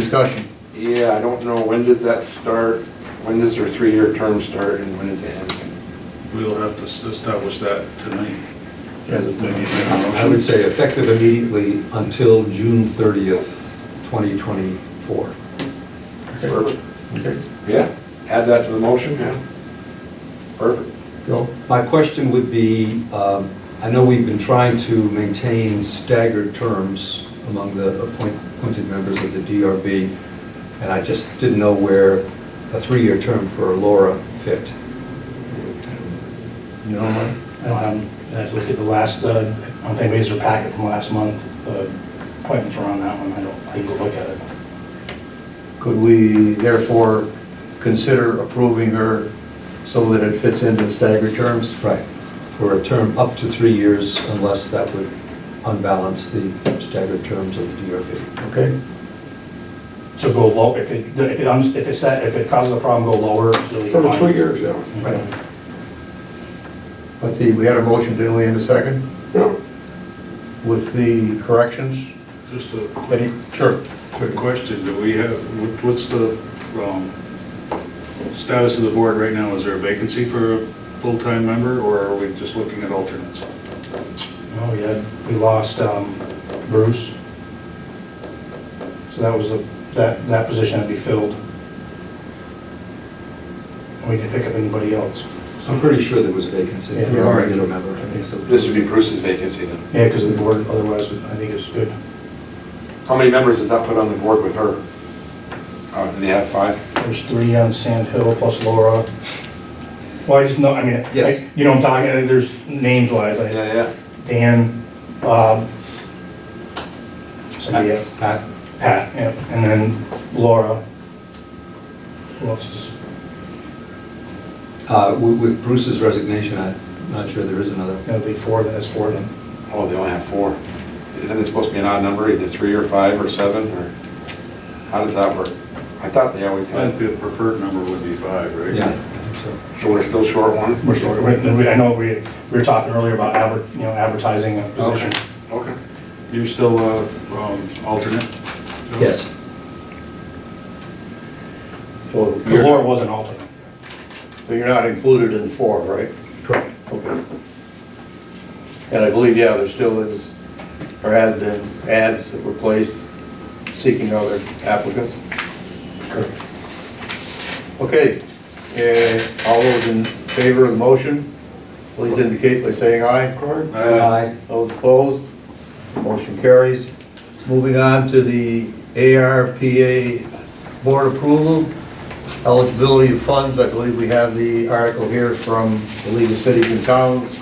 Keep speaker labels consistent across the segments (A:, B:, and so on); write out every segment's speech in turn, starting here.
A: discussion.
B: Yeah, I don't know, when does that start? When does their three-year term start and when does it end?
C: We'll have to s- establish that tonight.
D: Um, I would say effective immediately until June 30th, 2024.
B: Perfect.
A: Okay.
B: Yeah, add that to the motion, yeah. Perfect.
A: Go.
D: My question would be, um, I know we've been trying to maintain staggered terms among the appoint- appointed members of the DRB, and I just didn't know where a three-year term for Laura fit.
A: You don't mind?
E: I don't have, Um, I have to look at the last, uh, I don't think we used a packet from last month, uh, appointments are on that one, I don't, I can go look at it.
A: Could we therefore consider approving her so that it fits into staggered terms?
D: Right, for a term up to three years unless that would unbalance the staggered terms of the DRB.
A: Okay?
E: So go low, if it, if it, uns- if it's that, if it causes a problem, go lower.
F: For the two years, yeah.
E: Right.
A: But the, we had a motion, didn't we, in a second,
F: Yeah.
A: with the corrections?
C: Just a quick-
A: Any? Sure.
C: quick question, do we have, what- what's the um, status of the board right now? Is there a vacancy for a full-time member, or are we just looking at alternates?
E: Oh, yeah, we lost um, Bruce. So that was, the- that, that position had to be filled. We didn't pick up anybody else.
D: I'm pretty sure there was a vacancy
E: Yeah,
D: for
A: all
D: a
A: right.
D: regular member.
B: This would be Bruce's vacancy then.
E: Yeah, because the board otherwise, I think it's good.
B: How many members does that put on the board with her? Uh, do they have five?
E: There's three on Sand Hill plus Laura. Well, I just know, I mean,
D: Yes.
E: I- you know, I'm talking, uh, there's names wise, I,
B: yeah.
E: Dan, Bob, somebody, else.
D: Pat?
E: Pat, yeah, and then Laura. Who else is?
D: Uh, With with Bruce's resignation, I'm not sure there is another.
E: That'd be four, that's four then.
B: Oh, they only have four. Isn't it supposed to be an odd number, either three or five or seven, or how does that work? I thought they always
C: I
B: had,
C: think the preferred number would be five, right?
D: Yeah, I think so.
F: Uh,
B: so we're still short one?
E: We're sort of, we- I know we, we were talking earlier about adver, you know, advertising a position.
B: Okay.
C: You're still uh, um, alternate? Joe?
D: Yes,
A: So
E: Because Laura
A: you're,
E: was an alternate.
A: so you're not included in four, right?
D: correct.
A: Okay. And I believe, yeah, there still is, or has been ads that were placed seeking other applicants. Okay, eh, all those in favor of the motion, please indicate by saying aye.
F: Uh,
D: Aye.
A: Those opposed, motion carries. Moving on to the ARPA board approval, eligibility of funds, I believe we have the article here from the League of Cities and Towns.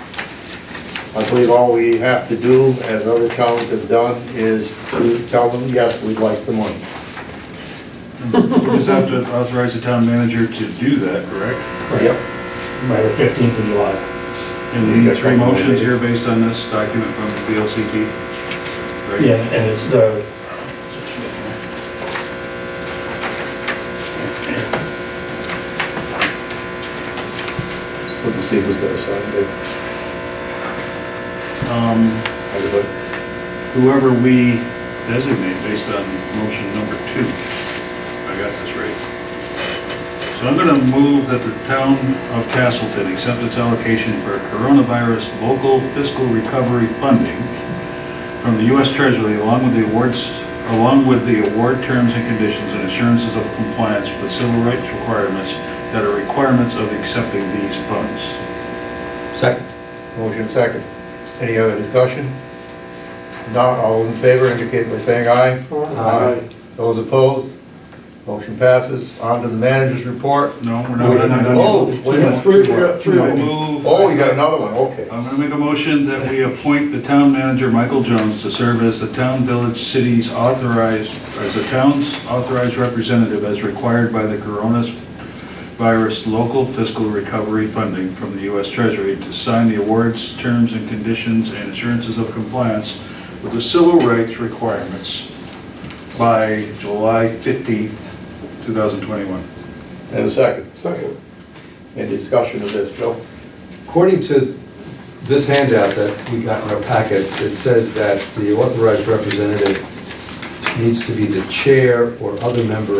A: I believe all we have to do, as other towns have done, is to tell them, yes, we'd like the money.
C: We just have to authorize the town manager to do that, correct?
A: Yep,
E: By the 15th of July.
C: And the three motions here based on this document from the VLCT? right?
E: Yeah, and it's the.
A: let me see who's gonna sign it.
C: Um,
A: Everybody.
C: whoever we designate based on motion number two. I got this right. So I'm gonna move that the town of Castleton accept its allocation for coronavirus local fiscal recovery funding from the US Treasury along with the awards, along with the award terms and conditions and assurances of compliance with the civil rights requirements that are requirements of accepting these funds.
D: Second?
A: Motion second. Any other discussion? Not all in favor, indicate by saying aye.
D: Aye.
A: Those opposed? Motion passes. On to the manager's report.
C: No, we're not.
E: No, no, no, no.
A: Oh, wait a minute.
F: Three, we got three.
C: I move-
A: Oh, you got another one, okay.
C: I'm going to make a motion that we appoint the town manager, Michael Jones, to serve as the town, village, city's authorized, as the town's authorized representative as required by the coronavirus local fiscal recovery funding from the U.S. Treasury to sign the awards, terms and conditions, and assurances of compliance with the civil rights requirements by July 15th, 2021.
A: And a second.
F: Second.
A: Any discussion of this, Joe?
D: According to this handout that we got in our packets, it says that the authorized representative needs to be the chair or other member